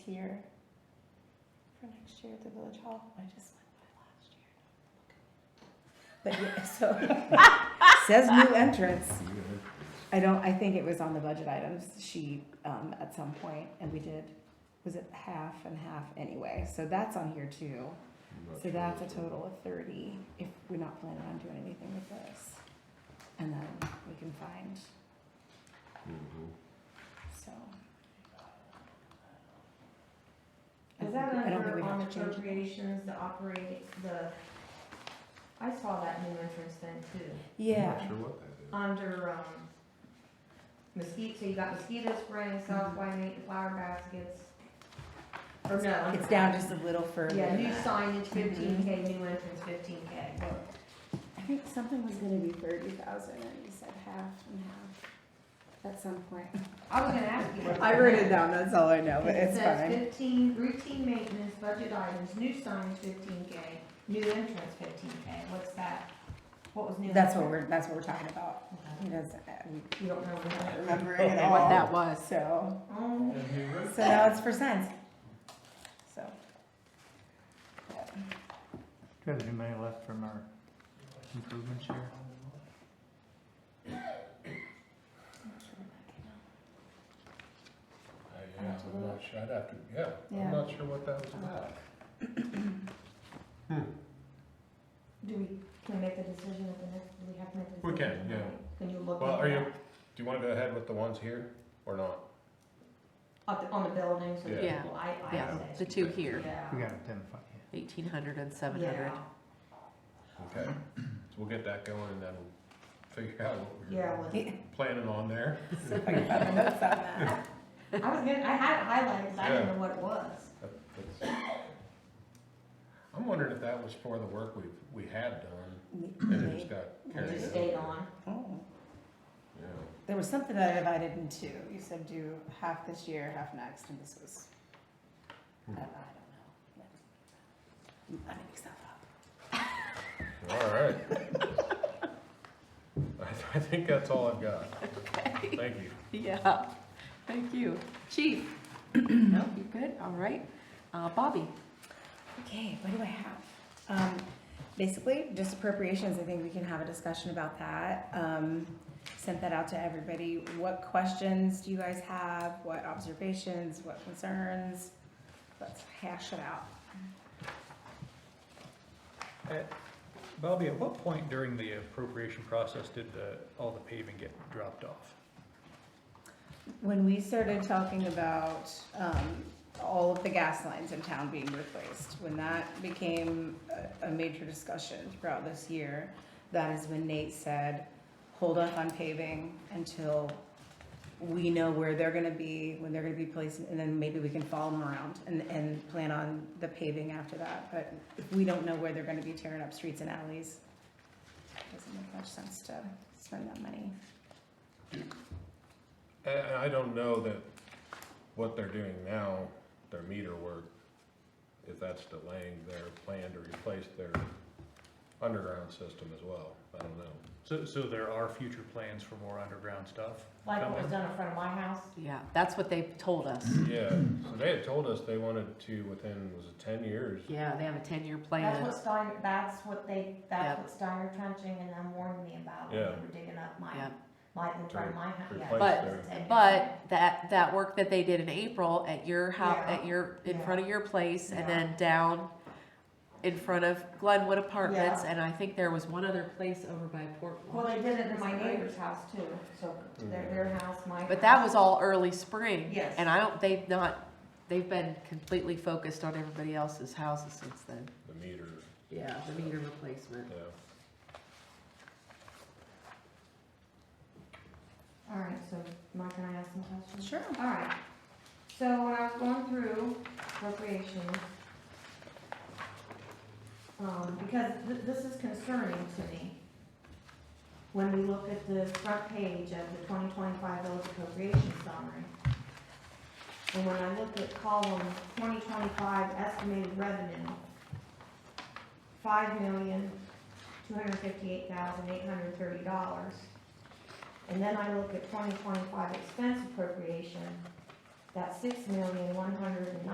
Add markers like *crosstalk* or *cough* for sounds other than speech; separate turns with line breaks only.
here for next year at the village hall. I just went by last year.
But yeah, so, *laughs*
*laughs*
says new entrance. I don't, I think it was on the budget items, she, um, at some point, and we did, was it half and half anyway? So that's on here too. So that's a total of thirty, if we're not planning on doing anything with this. And then we can find,
Mm-hmm.
so. I
Is that
think- I don't think
under
we
on
have to change it.
appropriations, the operating, the, I saw that new entrance thing too,
Yeah,
sure what that
under, um, mosquito, so you got mosquito spraying,
Mhm.
south white, flower baskets. Or no. under-
it's down just a little further.
Yeah,
than
new
that.
signage fifteen K, new entrance fifteen K.
I think something was gonna be thirty thousand, and you said half and half at some point.
I was gonna ask you. what-
I wrote it down, that's all I know, but
It
it's
says
fine.
fifteen, routine maintenance, budget items, new signage fifteen K, new entrance fifteen K, what's that? What was new?
That's what
entrance?
we're, that's what we're talking about. He doesn't, I'm
You don't know what that
not
is.
remembering at all. What that was. So,
Oh,
so now it's for signs. So,
Do you have any money left from our improvements here?
I, yeah, I'm not sure, I'd have to, yeah,
Yeah.
I'm not sure what that was about.
do we, can we make the decision at the next, do we have to make the decision?
We can, yeah.
tonight? Can you look?
Well,
into
are you,
that?
do you wanna go ahead with the ones here, or not?
On the, on the building, so that
Yeah.
people, I,
Yeah,
I
The
say.
two here,
We
Yeah.
gotta identify it.
eighteen hundred and seven hundred.
Yeah,
*laughs*
Okay, so we'll get that going and then we'll figure out what
yeah,
we're
well, *laughs*
Yeah.
planning on there.
so if I can find my notes on that.
I was gonna, I had it highlighted, 'cause I didn't
Yeah.
know what it was.
That- that's- I'm wondering if that was for the work we've, we had done, and it just got
It
carried
just
over.
stayed on.
Oh,
Yeah,
There was something that I divided in two. You said do half this year, half next, and this was, I don't know, I don't know. I make stuff up.
all right. *laughs* I, I think that's all I've got, thank you.
Yeah, thank you. Chief? No, you good? All right. Uh, Bobby?
Okay, what do I have? Um, basically, just appropriations, I think we can have a discussion about that. Um, sent that out to everybody. What questions do you guys have? What observations, what concerns? Let's hash it out.
Bobby, at what point during the appropriation process did the, all the paving get dropped off?
When we started talking about, um, all of the gas lines in town being replaced, when that became a, a major discussion throughout this year, that is when Nate said, hold up on paving until we know where they're gonna be, when they're gonna be placed, and then maybe we can follow them around and, and plan on the paving after that, but if we don't know where they're gonna be tearing up streets and alleys, it doesn't make much sense to spend that money.
And and I don't know that what they're doing now, their meter work, if that's delaying their plan to replace their underground system as well, I don't know.
So, so there are future plans for more underground stuff?
Like what was
coming?
done in front of my house?
Yeah, that's what they told us.
Yeah, so they had told us they wanted to, within, was it ten years?
Yeah, they have a ten-year
That's
plan.
what Steiner, that's what they, that's
Yep.
what Steiner trenching and them warned me about when they
Yeah.
were digging up my,
Yep.
my, in front of my house, yeah.
replace
But-
their-
But that, that work that they did in April at your house,
Yeah.
at your, in
Yeah.
front of your place
Yeah.
and then down in front of Glenwood Apartments,
Yeah.
and I think there was one other place over by Port.
Well, they did it in my neighbor's house too, so their, their house, my.
But that
house.
was all early spring.
Yes.
And I don't, they've not, they've been completely focused on everybody else's houses since then.
The meter,
Yeah, the meter replacement.
yeah.
All right, so Mike, can I ask some questions?
Sure.
Oh, All right, so when I was going through appropriations, um, because th- this is concerning to me, when we look at the front page of the twenty twenty-five village appropriation summary, and when I look at column twenty twenty-five estimated revenue, five million, two hundred fifty-eight thousand, eight hundred thirty dollars, and then I look at twenty twenty-five expense appropriation, that's six million, one hundred and